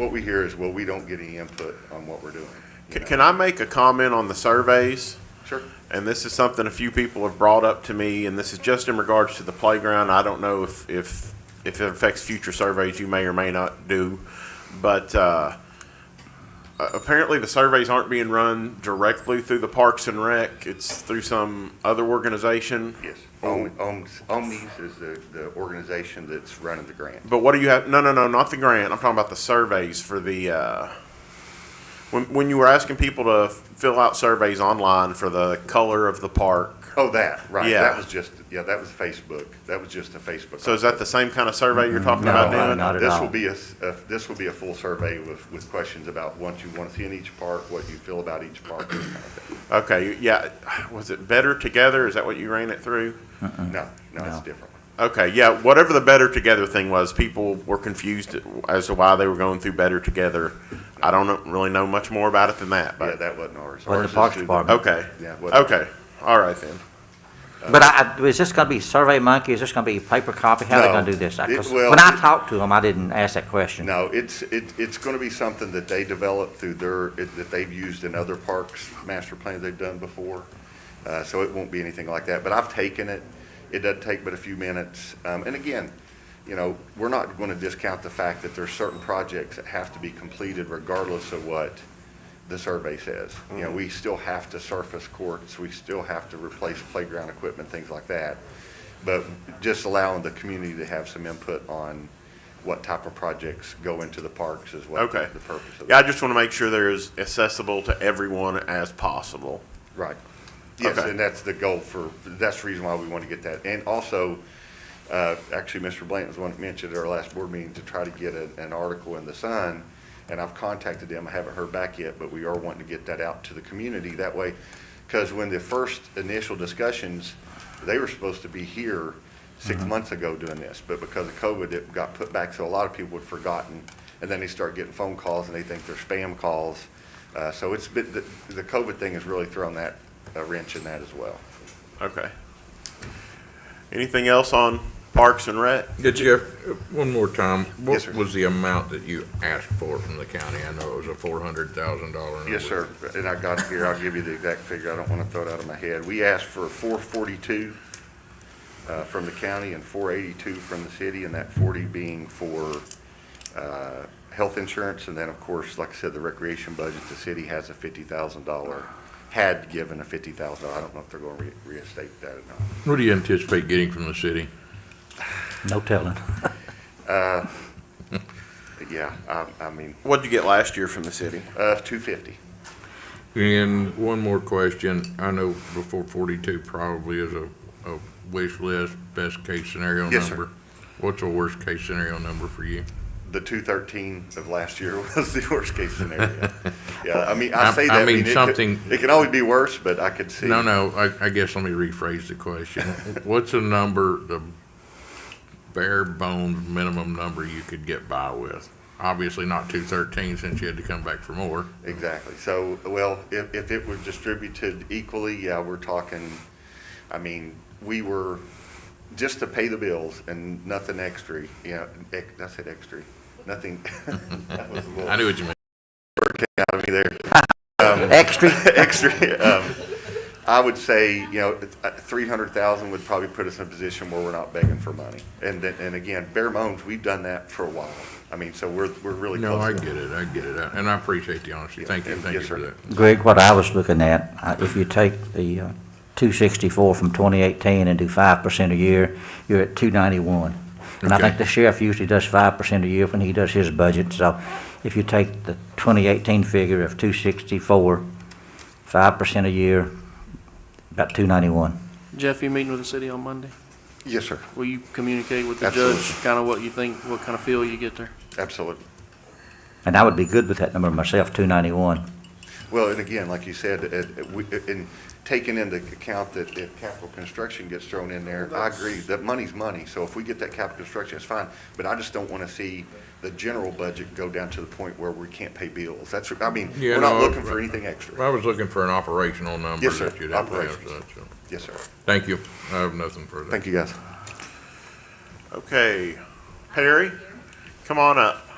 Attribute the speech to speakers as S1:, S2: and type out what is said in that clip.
S1: What we hear is, well, we don't get any input on what we're doing. you
S2: Can,
S1: know?
S2: can I make a comment on the surveys?
S1: Sure.
S2: And this is something a few people have brought up to me, and this is just in regards to the playground. I don't know if, if, if it affects future surveys you may or may not do. But, uh, a- apparently the surveys aren't being run directly through the Parks and Rec. It's through some other organization.
S1: Yes.
S2: Oh.
S1: Om- Om's- Omnis is the, the organization that's running the grant.
S2: But what do you have? No, no, no, not the grant. I'm talking about the surveys for the. Uh, when when you were asking people to fill out surveys online for the color of the park,
S1: Oh, that, right.
S2: Yeah.
S1: That was just, yeah, that was Facebook. That was just a Facebook.
S2: so is that the same kind of survey you're talking
S3: No,
S2: about
S3: uh,
S2: doing?
S3: not at
S1: This
S3: all.
S1: will be a, s- a- this will be a full survey with, with questions about what you want to see in each park, what you feel about each park, that kind of thing.
S2: Okay, yeah. Was it Better Together? Is that what you ran it through?
S1: No, no, it's
S3: No.
S1: different.
S2: Okay, yeah. Whatever the Better Together thing was, people were confused as to why they were going through Better Together. I don't know, really know much more about it than that,
S1: Yeah,
S2: but
S1: that wasn't ours.
S3: Well, the
S1: Ours is
S3: Parks
S1: through the-
S3: Department.
S2: okay,
S1: Yeah, what-
S2: okay, all right then.
S3: But I, I- is this gonna be Survey Monkey, is this gonna be paper copy, how they
S1: No.
S3: gonna do this? I-
S1: It
S3: 'cause
S1: will-
S3: When I talked to them, I didn't ask that question.
S1: No, it's, it, it's going to be something that they develop through their, it- that they've used in other parks, master plans they've done before. Uh, so it won't be anything like that, but I've taken it. It does take but a few minutes. Um, and again, you know, we're not going to discount the fact that there's certain projects that have to be completed regardless of what the survey says. You
S2: Mm-hmm.
S1: know, we still have to surface courts, we still have to replace playground equipment, things like that. But just allowing the community to have some input on what type of projects go into the parks is what
S2: Okay.
S1: the purpose of
S2: Yeah, I
S1: that.
S2: just want to make sure they're as accessible to everyone as possible.
S1: Right. Yes,
S2: Okay.
S1: and that's the goal for, that's the reason why we want to get that. And also, uh, actually, Mr. Blanton was the one that mentioned at our last board meeting to try to get a- an article in the Sun, and I've contacted them, I haven't heard back yet, but we are wanting to get that out to the community that way. Because when the first initial discussions, they were supposed to be here six months ago doing this, but because of COVID, it got put back, so a lot of people had forgotten. And then they start getting phone calls and they think they're spam calls. Uh, So it's been, the the COVID thing has really thrown that a wrench in that as well.
S2: Okay. Anything else on Parks and Rec?
S4: Did you, one more time,
S1: Yes,
S4: what
S1: sir.
S4: was the amount that you asked for from the county? I know it was a four hundred thousand dollar.
S1: Yes, sir, and I got it here, I'll give you the exact figure, I don't want to throw it out of my head. We asked for 442 uh, from the county and 482 from the city, and that 40 being for uh, health insurance, and then, of course, like I said, the recreation budget, the city has a $50,000, had given a $50,000, I don't know if they're going to reinstate that or not.
S4: What do you anticipate getting from the city?
S3: No telling.
S1: But yeah, I- I mean,
S2: What'd you get last year from the city?
S1: uh, 250.
S4: And one more question. I know before forty-two probably is a, a wish list, best case scenario number.
S1: Yes, sir.
S4: What's the worst case scenario number for you?
S1: The 213 of last year was the worst-case scenario. Yeah, I mean, I
S4: I-
S1: say
S4: I
S1: that.
S4: mean
S1: it could-
S4: something-
S1: It can always be worse, but I could see.
S4: No, no, I, I guess let me rephrase the question. What's a number, the bare bones minimum number you could get by with? Obviously not two thirteen since you had to come back for more.
S1: Exactly. So, well, if, if it were distributed equally, yeah, we're talking, I mean, we were, just to pay the bills and nothing extra, you know, ex- I said extra, nothing. That was a little
S4: I knew what you meant.
S1: out of me there.
S3: Extra,
S1: extra. Um, I would say, you know, uh, three hundred thousand would probably put us in a position where we're not begging for money. And then, and again, bare bones, we've done that for a while. I mean, so we're, we're really
S4: No, I
S1: close.
S4: get it, I get it, and I appreciate the honesty. Thank you,
S1: Yeah,
S4: thank you
S1: yes,
S4: for
S1: sir.
S4: that.
S3: Greg, what I was looking at, uh, if you take the uh, 264 from 2018 and do 5% a year, you're at 291. And I
S4: Okay.
S3: think the sheriff usually does 5% a year when he does his budget, so if you take the 2018 figure of 264, 5% a year, about 291.
S5: Jeff, you meeting with the city on Monday?
S1: Yes, sir.
S5: Will you communicate with the
S1: Absolutely.
S5: judge, kind of what you think, what kind of feel you get there?
S1: Absolutely.
S3: And I would be good with that number myself, 291.
S1: Well, and again, like you said, it- it- we- in taking into account that if capital construction gets thrown in there, I agree, that money's money. So if we get that capital construction, it's fine. But I just don't want to see the general budget go down to the point where we can't pay bills. That's, I mean,
S4: Yeah,
S1: we're not
S4: no,
S1: looking for anything extra.
S4: I was looking for an operational number
S1: Yes, sir.
S4: that you'd have to have,
S1: Operations.
S4: so-
S1: Yes, sir.
S4: Thank you, I have nothing further.
S1: Thank you, guys.
S2: Okay, Perry, come on up.